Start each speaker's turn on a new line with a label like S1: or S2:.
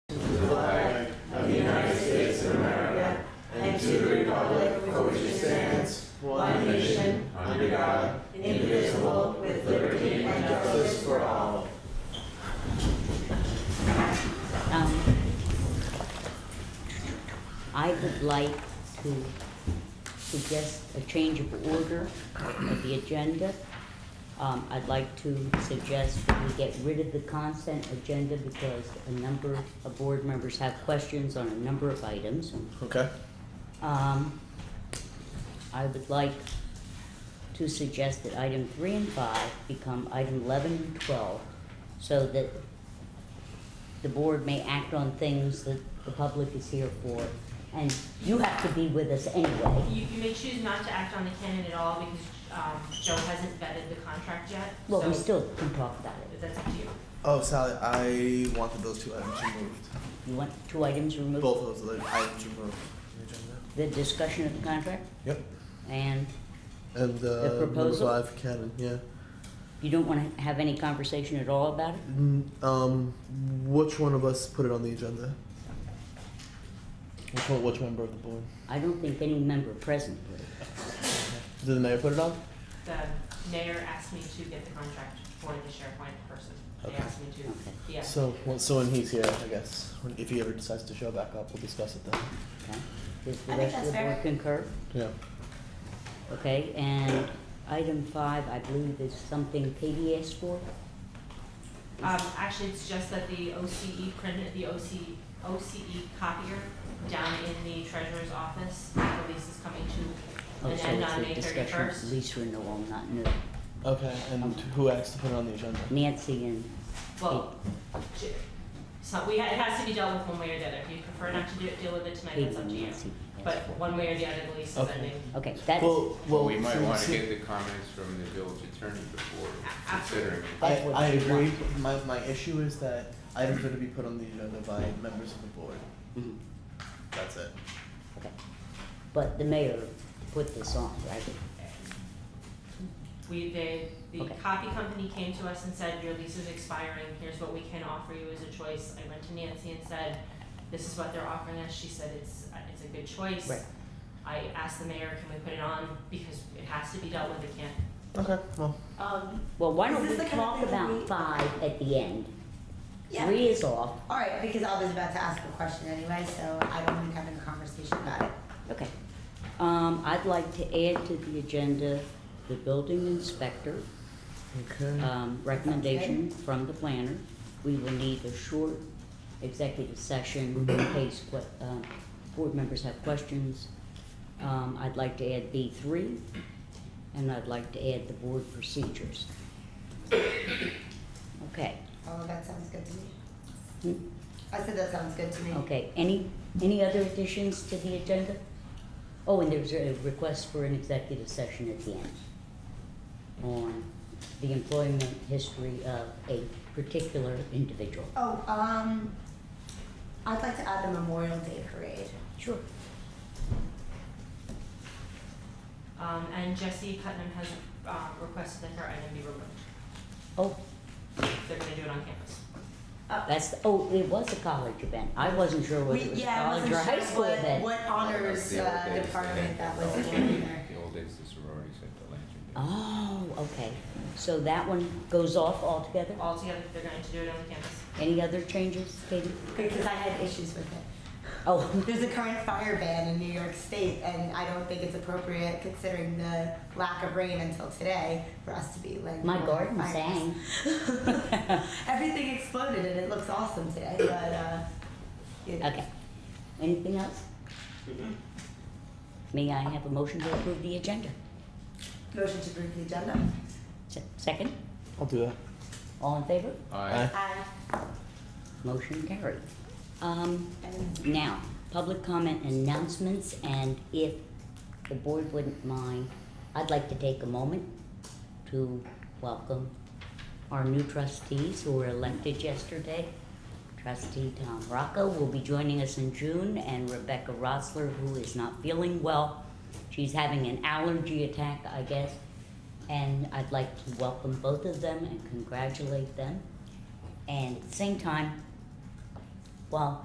S1: Um, I would like to suggest a change of order of the agenda. Um, I'd like to suggest that we get rid of the consent agenda because a number of board members have questions on a number of items.
S2: Okay.
S1: Um, I would like to suggest that item three and five become item eleven and twelve, so that the board may act on things that the public is here for, and you have to be with us anyway.
S3: You, you may choose not to act on the canon at all because um, Joe hasn't vetted the contract yet.
S1: Well, we
S3: so
S1: still can talk about it.
S3: That's up to you.
S2: Oh, Sally, I wanted those two items removed.
S1: You want two items removed?
S2: Both of those items removed. from the agenda.
S1: The discussion of the contract,
S2: Yep.
S1: and
S2: And uh,
S1: The proposal?
S2: number five, Canon. Yeah.
S1: you don't want to have any conversation at all about it?
S2: Mm, Um, which one of us put it on the agenda? Which one? Which member of the board?
S1: I don't think any member present would.
S2: Did the mayor put it on?
S3: The mayor asked me to get the contract for the SharePoint person. They
S2: Okay.
S3: asked me
S1: Okay.
S3: to, yeah.
S2: So, well, so when he's here, I guess when, if he ever decides to show back up, we'll discuss it then.
S1: Okay. Does the
S4: I think
S1: rest of
S4: that's
S1: the board
S4: fair.
S1: concur?
S2: Yeah.
S1: Okay, and item five, I believe is something Katie asked for?
S3: Um, actually, it's just that the OCE printed, the OCE, OCE E copier down in the treasurer's office, the lease is coming to
S1: Oh,
S3: an
S1: so
S3: end
S1: it's
S3: on
S1: a
S3: May
S1: discussion of
S3: thirty-first.
S1: lease renewal, not new.
S2: Okay. And who asked to put it on the agenda?
S1: Nancy and,
S3: Well, j- so we, ha- it has to be dealt with one way or the other. If you prefer not to do, deal with it tonight,
S1: Katie
S3: that's up to
S1: and
S3: you.
S1: Nancy asked
S3: But
S1: for.
S3: one way or the other, the lease is
S2: Okay.
S3: ending.
S1: Okay, that's,
S2: well, well,
S5: Well, we might
S2: since-
S5: want to get the comments from the village attorney before considering. it.
S2: I,
S1: That's what
S2: I
S1: we
S2: agree. My, my issue is that items are to be put on the agenda by members of the board.
S1: mhm,
S2: That's it.
S1: okay. But the mayor put this on, right?
S3: We, they, the
S1: Okay.
S3: copy company came to us and said, your lease is expiring, here's what we can offer you as a choice. I went to Nancy and said, this is what they're offering us, she said, it's, it's a good choice.
S1: Right.
S3: I asked the mayor, can we put it on, because it has to be dealt with, it can't.
S2: Okay. Well,
S4: Um,
S1: Well, why
S4: Is
S1: don't
S4: this
S1: we
S4: the kind of
S1: talk
S4: thing that
S1: about
S4: we-
S1: five at the end?
S4: Yeah.
S1: Three is off,
S4: all right, because I was about to ask a question anyway, so I don't mind having a conversation about it.
S1: okay. Um, I'd like to add to the agenda the building inspector.
S2: okay.
S1: um, recommendation from the planner. We will need a short executive session in case que- um, board members have questions. Um, I'd like to add B three, and I'd like to add the board procedures. Okay,
S4: All of Oh, that sounds good to me.
S1: Hmm?
S4: I said that sounds good to me.
S1: okay, any, any other additions to the agenda? Oh, and there's a request for an executive session at the end on the employment history of a particular individual.
S4: Oh, um, I'd like to add the Memorial Day Parade.
S1: Sure.
S3: Um, and Jesse Putnam has, um, requested that her item be removed.
S1: Oh,
S3: They're gonna do it on campus.
S1: that's, the- oh, it was a college event. I wasn't sure whether
S4: We,
S1: it was a
S4: yeah, I
S1: college
S4: wasn't
S1: or a high
S4: sure
S1: school
S4: what,
S1: event.
S4: what honors
S5: The old days,
S4: uh,
S5: they had
S4: department that was
S5: the
S4: in there.
S5: The old days, the sororities had the lantern.
S1: Oh, okay. So that one goes off altogether?
S3: Altogether, they're going to do it on campus.
S1: Any other changes, Katie?
S4: Because I had issues with it.
S1: Oh,
S4: There's a current fire ban in New York State, and I don't think it's appropriate considering the lack of rain until today for us to be like.
S1: my garden
S4: fires.
S1: sang.
S4: Everything exploded, and it looks awesome today, but, uh, you know.
S1: Okay. Anything else? May I have a motion to approve the agenda?
S4: Motion to approve the agenda.
S1: Se- Second?
S2: I'll do that.
S1: All in favor?
S5: Aye.
S4: Aye.
S1: Motion carried. Um,
S4: And
S1: Now, public comment announcements, and if the board wouldn't mind, I'd like to take a moment to welcome our new trustees who were elected yesterday. Trustee Tom Rocco will be joining us in June, and Rebecca Rosler, who is not feeling well. She's having an allergy attack, I guess. And I'd like to welcome both of them and congratulate them. And at the same time, while